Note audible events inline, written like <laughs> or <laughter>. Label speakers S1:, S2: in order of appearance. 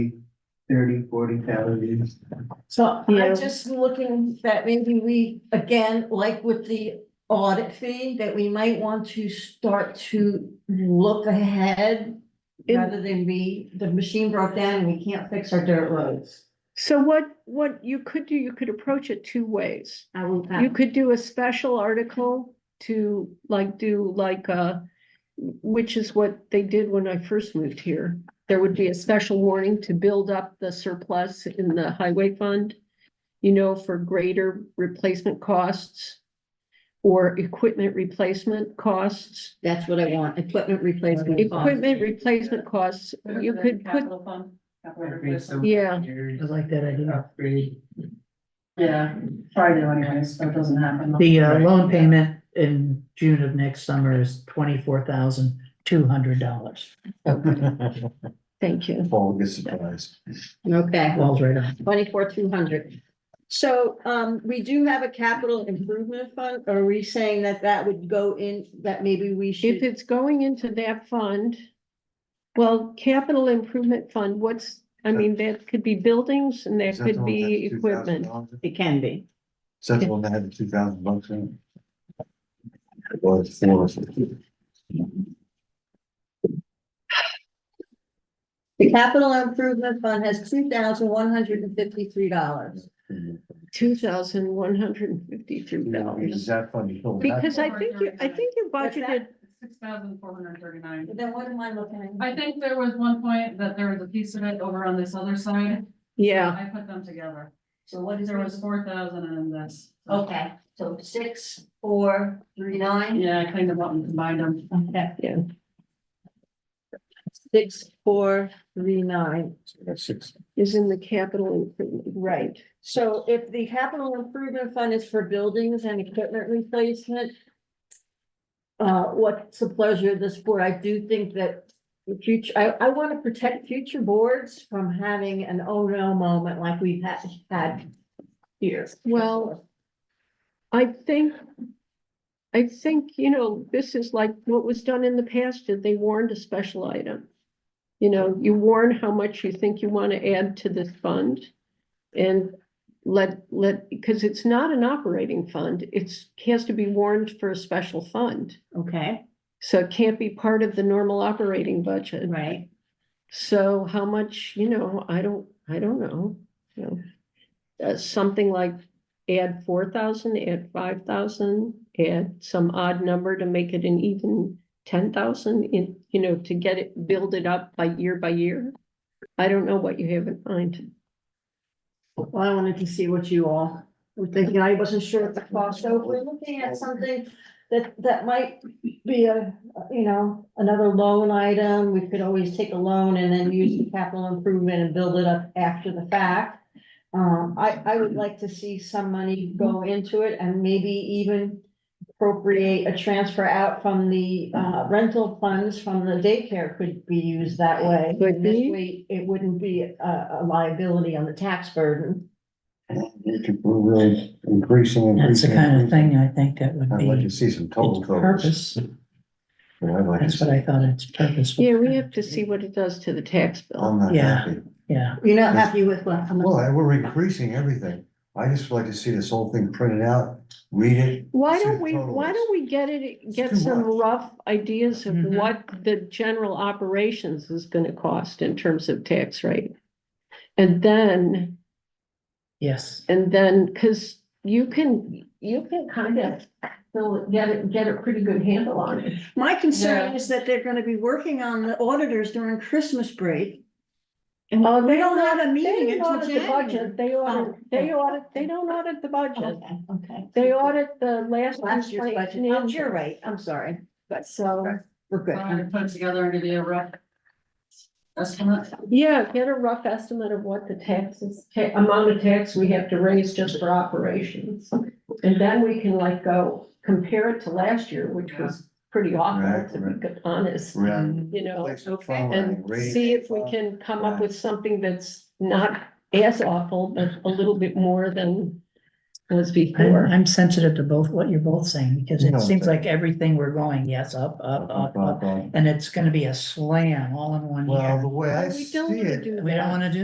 S1: thirty, forty thousand.
S2: So
S3: Yeah.
S2: I'm just looking that maybe we, again, like with the audit fee, that we might want to start to look ahead.
S3: In-
S2: Rather than be, the machine broke down and we can't fix our dirt roads.
S3: So what, what you could do, you could approach it two ways.
S2: I will,
S3: You could do a special article to like do like uh which is what they did when I first moved here. There would be a special warning to build up the surplus in the highway fund. You know, for greater replacement costs. Or equipment replacement costs,
S2: that's what I want, equipment replacement.
S3: equipment replacement costs, you could put,
S4: Capital fund. capital
S1: Upgrade
S4: replacement.
S1: some
S3: yeah.
S1: computers,
S5: I like that idea.
S6: <laughs>
S1: Upgrade.
S4: Yeah, try to anyways, so it doesn't happen.
S5: The uh,
S1: Right.
S5: loan payment in June of next summer is twenty-four thousand two hundred dollars.
S3: thank you.
S6: Paul gets surprised.
S2: Okay.
S5: Falls right on.
S2: Twenty-four, two hundred. So, um, we do have a capital improvement fund. Are we saying that that would go in, that maybe we
S3: If
S2: should?
S3: it's going into that fund, well, capital improvement fund, what's, I mean, that could be buildings and that
S6: Is the
S3: could
S6: one
S3: be
S6: had the $2,000
S3: equipment.
S6: in it?
S2: It can be.
S6: Is that the one that had the two thousand bucks in it? It was four.
S2: The capital improvement fund has two thousand one hundred and fifty-three dollars.
S3: Two thousand one hundred and fifty-three
S6: Is
S3: dollars.
S6: that funny? Oh,
S3: Because I think you, I think you
S2: What's
S3: budgeted,
S4: Six thousand four hundred thirty-nine.
S2: Then what am I looking
S4: I think there was one point that there was a piece of it over on this other side.
S3: yeah,
S4: I put them together.
S2: So what
S4: There was four thousand and then this.
S2: Okay, so six, four, three, nine?
S4: Yeah, I cleaned them up and combined them.
S2: Okay.
S3: Yeah.
S2: Six, four, three, nine.
S6: Six.
S3: is in the capital improvement.
S2: Right, so if the capital improvement fund is for buildings and equipment replacement. Uh, what's the pleasure of this board? I do think that the future, I, I want to protect future boards from having an oh no moment like we've had, had years.
S3: Well- I think, I think, you know, this is like what was done in the past, that they warned a special item. You know, you warn how much you think you want to add to this fund. And let, let, because it's not an operating fund, it's, has to be warned for a special fund.
S2: Okay,
S3: So it can't be part of the normal operating budget.
S2: right.
S3: So how much, you know, I don't, I don't know, you know. Uh, something like add four thousand, add five thousand, add some odd number to make it an even ten thousand in, you know, to get it, build it up by year by year. I don't know what you have in mind.
S2: Well, I wanted to see what you all were thinking. I wasn't sure at the cost, so if we're looking at something that, that might be a, you know, another loan item, we could always take a loan and then use the capital improvement and build it up after the fact. Um, I, I would like to see some money go into it and maybe even appropriate a transfer out from the, uh, rental funds from the daycare could be used that way.
S3: Could be.
S2: This way, It wouldn't be a, a liability on the tax burden.
S6: We could- We're really increasing.
S5: That's the
S6: increasing,
S5: kind of
S6: increasing.
S5: thing I think that would
S6: I'd like
S5: be
S6: to see some total
S5: its
S6: totals.
S5: purpose.
S6: Yeah, I'd like to
S5: That's what
S6: see-
S5: I thought its purpose. was.
S3: Yeah, we have to see what it does to the tax bill.
S6: I'm not
S5: Yeah.
S6: happy.
S5: Yeah,
S2: You're not happy with what?
S6: Well, I- we're increasing everything. I just would like to see this whole thing printed out, read it.
S3: Why
S6: see
S3: don't
S6: the
S3: we, why
S6: totals.
S3: don't we get it, get
S6: too
S3: some
S6: much.
S3: rough ideas of
S2: Mm-hmm.
S5: Mhm.
S3: what the general operations is gonna cost in terms of tax rate? And then,
S5: yes.
S3: and then, cause you can, you can kind of still get it, get a pretty good handle on it.
S2: My concern
S4: Yeah.
S2: is that they're gonna be working on the auditors during Christmas break.
S3: Oh,
S2: They don't have a
S3: They
S2: meeting
S3: don't
S2: until
S3: audit the
S2: January.
S3: budget, they audit,
S2: Oh.
S3: they audit, they don't audit the budget,
S2: Okay, okay.
S3: they audit the last.
S2: Last year's budget, Oh, you're right, I'm sorry,
S3: But so.
S2: we're
S4: So I
S2: good.
S4: put it together uh, and give you a rough. Estimate.
S3: Yeah, get a rough estimate of what the taxes, ta- amount of tax we have to raise just for operations. And then we can like go compare it to last year, which was pretty awful,
S6: Right,
S3: to
S6: right.
S3: be honest,
S6: We're at
S3: you know.
S6: place
S4: okay,
S6: following,
S3: And
S6: rating,
S3: see if we
S6: follow-
S3: can come up with something that's not as awful, but a little bit more than was
S5: I'm,
S3: before.
S5: I'm sensitive to both, what you're both saying, because
S6: No,
S5: it seems
S6: thank
S5: like everything we're going, yes, up, up, up, up. And it's gonna be a slam all in one
S6: Well,
S5: year.
S6: the way I
S3: We
S6: see
S3: don't wanna
S6: it,
S3: do
S5: We
S3: that.
S5: don't wanna do